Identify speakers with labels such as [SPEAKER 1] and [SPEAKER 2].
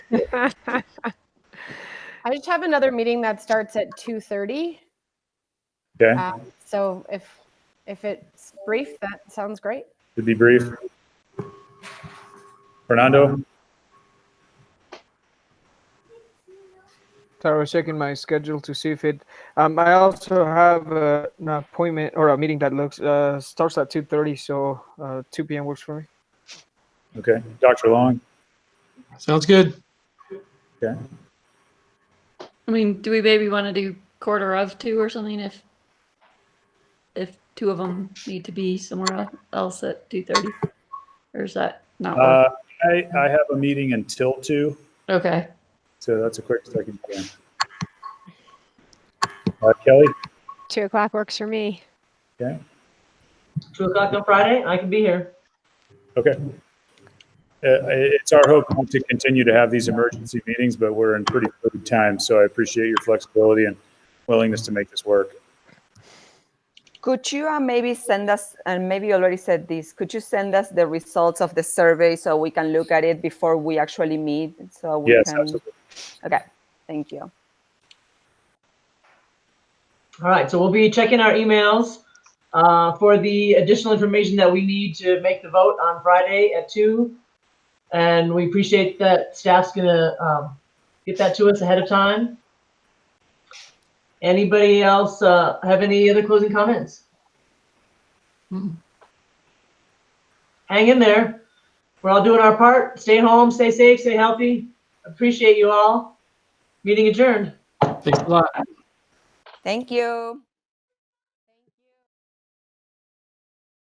[SPEAKER 1] I just have another meeting that starts at 2:30.
[SPEAKER 2] Okay.
[SPEAKER 1] Uh, So if, if it's brief, that sounds great.
[SPEAKER 2] to be brief. Fernando,
[SPEAKER 3] So I was checking my schedule to see if it. Um, I also have uh, an appointment or a meeting that looks uh, starts at two thirty, so uh, two p.m. works for me.
[SPEAKER 2] okay. Dr. Long,
[SPEAKER 4] Sounds good.
[SPEAKER 5] I mean, do we maybe want to do quarter of two or something if if two of them need to be somewhere el- else at two thirty, or is that not work?
[SPEAKER 2] uh, I, I have a meeting until two,
[SPEAKER 5] okay?
[SPEAKER 2] so that's a quick second. plan. Uh, Kelly,
[SPEAKER 6] Two o'clock works for me.
[SPEAKER 7] Two o'clock on Friday, I can be here.
[SPEAKER 2] okay. Uh, it's our hope to continue to have these emergency meetings, but we're in pretty good time, so I appreciate your flexibility and willingness to make this work.
[SPEAKER 8] Could you uh, maybe send us, and maybe you already said this, could you send us the results of the survey so we can look at it before we actually meet? So we
[SPEAKER 2] Yes,
[SPEAKER 8] can.
[SPEAKER 2] absolutely.
[SPEAKER 8] Okay, thank you.
[SPEAKER 7] All right, so we'll be checking our emails uh, for the additional information that we need to make the vote on Friday at two. And we appreciate that staff's gonna um, get that to us ahead of time. Anybody else uh, have any other closing comments?
[SPEAKER 5] Mm.
[SPEAKER 7] Hang in there. We're all doing our part. Stay home, stay safe, stay healthy. Appreciate you all. Meeting adjourned.
[SPEAKER 4] Thanks a lot.
[SPEAKER 8] Thank you.